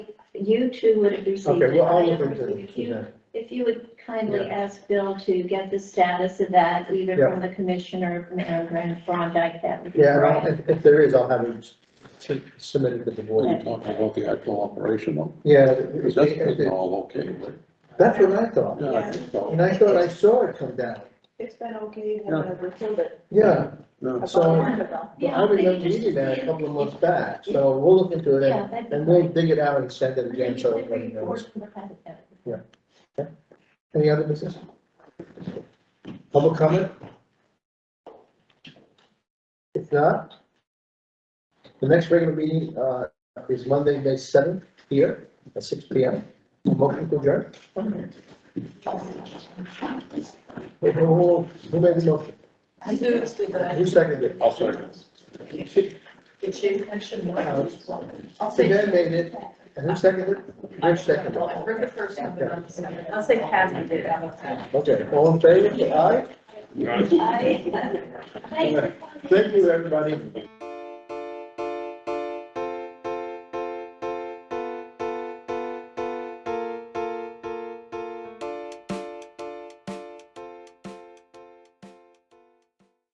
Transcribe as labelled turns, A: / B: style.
A: you two would have received
B: Okay,
A: it.
B: well,
A: I
B: I'll look
A: haven't
B: into
A: received it. If
B: it.
A: you,
B: yeah.
A: if you would kindly
B: Yeah.
A: ask Bill to get the status of that, either
B: Yeah.
A: from the commissioner or Mayor Grant Frondike, that would be
B: Yeah, and I'll-
A: great.
B: if, if there is, I'll have it s- submitted to the
A: Yeah.
B: board.
C: We're talking about the actual operation though,
B: Yeah,
C: because
B: it-
C: that's
B: it-
C: been
B: it-
C: all okay, but,
B: that's what I thought.
C: yeah, I think so.
B: And I thought I saw it come down.
D: It's been okay, we haven't overfilled it.
B: Yeah,
C: No.
D: About a
B: So-
D: month ago.
B: I remember reading that a couple of months back, so we'll look into it and, and we'll dig it out and send it again, so everybody knows. Any other business? Public comment? If not, the next regular meeting, uh, is Monday, May seventh, here at six P M. Motion to adjourn? Who, who- who made the motion?
D: I knew it was good, but I
B: Who
D: didn't.
B: seconded it?
C: I'll second.
D: Did you mention what
B: Uh,
D: I was? I'll say.
B: Dan made it, and who seconded it? Rich seconded
D: Well, I
B: it.
D: heard the first one, but I'm second. I'll say Kathy did. I don't know.
B: Okay, all in favor, aye?
A: I- I-
B: Thank you, everybody.